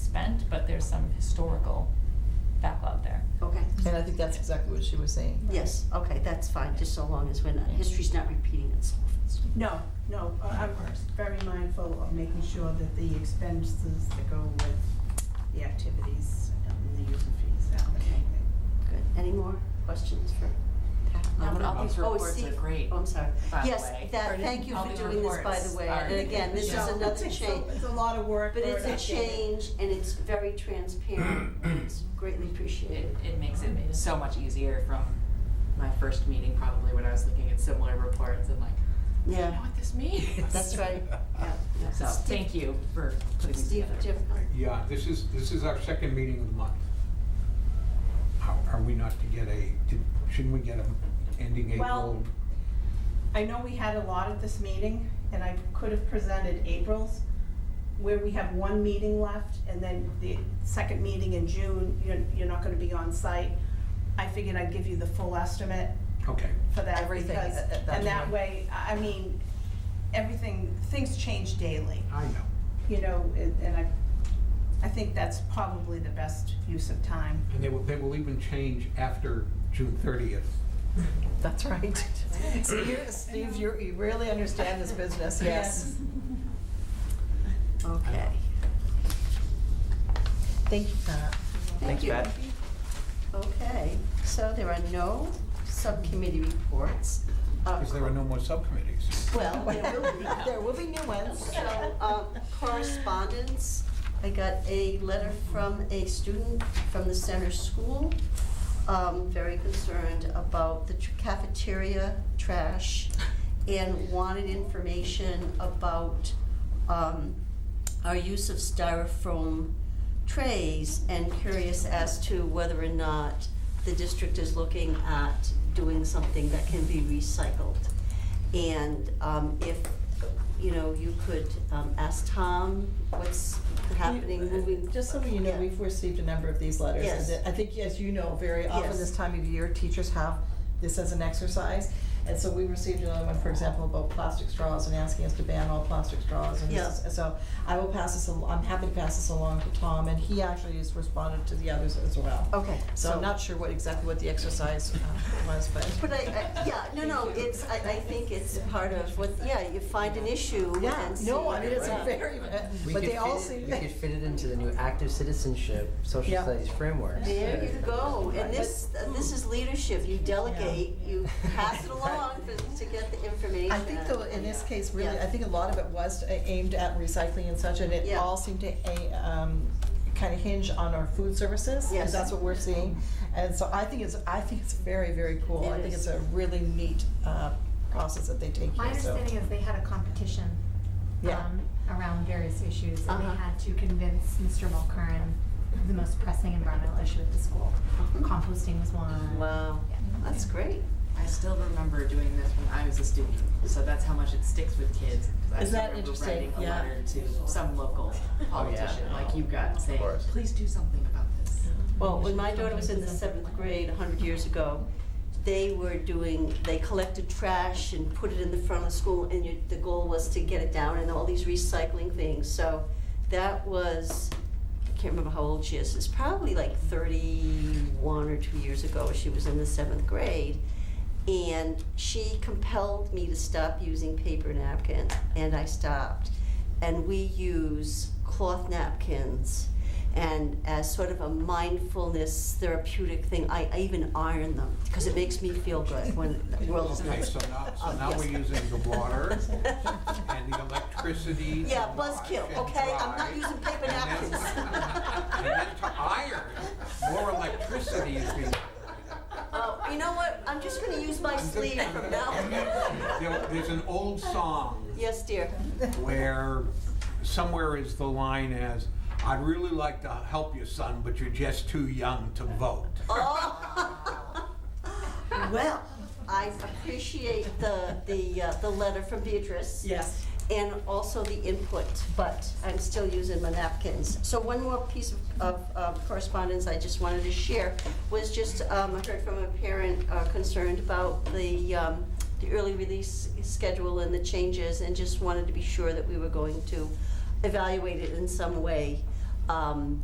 there's some historical backlog there. Okay, And I think that's exactly what she was saying. yes, okay, that's fine, just so long as we're not, history's not repeating itself. No, no, uh, I'm very mindful of making sure that the expenses that go with the activities and the user fees are allocated. Good, any more questions for? Pat? Um, I'm all these gonna- oh, reports Steve- are great, Oh, I'm sorry. by the way. Yes, that, Or did- thank you all for these doing this, by reports the way, are- and again, this is So, another it's a- change. It's a lot of work. But for it's an a updated- change and it's very transparent, and it's greatly It, appreciated. it makes it so much easier from my first meeting, probably when I was looking at similar reports and like, I don't know Yeah, what this means. that's right, yeah, yeah. So Steve- thank you for putting these Steve, together. do you have a comment? Yeah, this is, this is our second meeting of the month. How are we not to get a, did- shouldn't we get a ending Well- April? I know we had a lot at this meeting, and I could have presented April's, where we have one meeting left, and then the second meeting in June, you're, you're not gonna be on site. I figured I'd give you the full estimate Okay, for that. Everything because- at- at that And that point. way, I I mean, everything, things change daily, I know. you know, and and I, I think that's probably the best use of time. And they will, they will even change after June thirtieth. That's right. Steve, Steve, you you really understand this business, yes. Okay, Thank you, Pat. thank you. Okay, so there are no subcommittee reports. Uh, Because there are no more subcommittees. Well, there will be. There will be new ones. So, um, correspondence, I got a letter from a student from the center school, um, very concerned about the tr- cafeteria trash and wanted information about, um, our use of styrofoam trays and curious as to whether or not the district is looking at doing something that can be recycled. And um, if, you know, you could um, ask Tom what's happening, moving. Just so you know, Yeah. we've received a number of these letters. Yes. and I think, as you know, very often Yes. this time of year, teachers have this as an exercise. And so we received another one, for example, about plastic straws and asking us to ban all plastic straws. And this Yeah. is- so I will pass this, al- I'm happy to pass this along to Tom, and he actually has responded to the others as well. Okay, So I'm not sure what, exactly what the exercise uh, was, but. But I, I, yeah, no, no, it's, I, I think it's part of what, yeah, you find an issue Yeah, and see. no, I mean, it's a Right. very, uh, We but could they all fit seem. it, we could fit it into the new active citizenship social Yeah. studies framework. There you go, and this, uh, this is leadership, you delegate, you pass it along for- to get the information. I think though, in this case, really, Yeah. I think a lot of it was a- aimed at recycling and such, and it Yeah. all seemed to, a- um, kind of hinge on our food services. 'cause Yes. That's what we're seeing, and so I think it's, I think it's very, very cool. It I think is. it's a really neat, uh, process that they take My here, so. understanding is they had a competition Yeah. um, around various issues, and Uh-huh. they had to convince Mr. Mulcairn of the most pressing environmental issue at the school. Hmm. Composting was one. Wow, Yeah. that's great. I still remember doing this when I was a student, so that's how much it sticks with kids. 'cause Is that I still remember interesting? writing a Yeah. letter to some local politician, like you got, saying, course. please do something about this. Well, when my daughter was in the seventh grade a hundred years ago, they were doing, they collected trash and put it in the front of the school, and you, the goal was to get it down and all these recycling things, so that was, I can't remember how old she is, it's probably like thirty-one or two years ago, she was in the seventh grade. And she compelled me to stop using paper napkins, and I stopped. And we use cloth napkins and as sort of a mindfulness therapeutic thing, I, I even iron them because it makes me feel good when the world is not. Okay, so now, so Um, now yes. we're using the water and the electricity. to Yeah, wash buzzkill, and okay? I'm dry. not using paper And then- napkins. And then to iron, more electricity is being. Oh, you know what? I'm just gonna use my sleeve from now There- on. There's an old song Yes, dear. where somewhere is the line as, I'd really like to help you, son, but you're just too young to vote. Oh. Well, I appreciate the, the, uh, the letter from Beatrice. Yes. and also the input, but I'm still using my napkins. So one more piece of, of uh, correspondence I just wanted to share was just, um, I heard from a parent uh, concerned about the, um, the early release schedule and the changes, and just wanted to be sure that we were going to evaluate it in some way. Um,